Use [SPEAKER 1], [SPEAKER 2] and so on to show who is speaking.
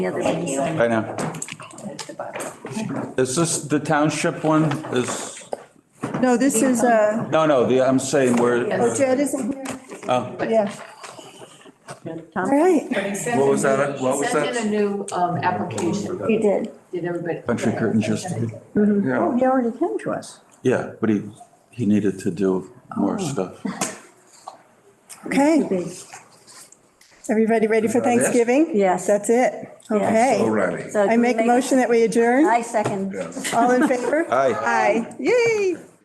[SPEAKER 1] The other one you signed
[SPEAKER 2] I know.
[SPEAKER 1] at the bottom.
[SPEAKER 2] Is this the township one? Is,
[SPEAKER 3] No, this is, uh,
[SPEAKER 2] no, no, the, I'm saying where,
[SPEAKER 3] oh, Jed isn't here.
[SPEAKER 2] oh,
[SPEAKER 3] Yeah. All right,
[SPEAKER 2] what was that? What was
[SPEAKER 4] Sent in a
[SPEAKER 2] that?
[SPEAKER 4] new um, application,
[SPEAKER 3] you did.
[SPEAKER 4] did everybody?
[SPEAKER 2] Country Curtain just,
[SPEAKER 1] Oh, he already came to us.
[SPEAKER 2] yeah, but he, he needed to do more stuff.
[SPEAKER 3] Okay. Everybody ready for
[SPEAKER 5] that it?
[SPEAKER 3] Thanksgiving?
[SPEAKER 6] Yes.
[SPEAKER 3] That's it. Okay.
[SPEAKER 5] Alrighty.
[SPEAKER 6] So
[SPEAKER 3] I
[SPEAKER 6] do we
[SPEAKER 3] make a motion that we adjourn.
[SPEAKER 6] I second.
[SPEAKER 5] Yes.
[SPEAKER 3] All in favor?
[SPEAKER 2] Aye.
[SPEAKER 3] Aye. Yay.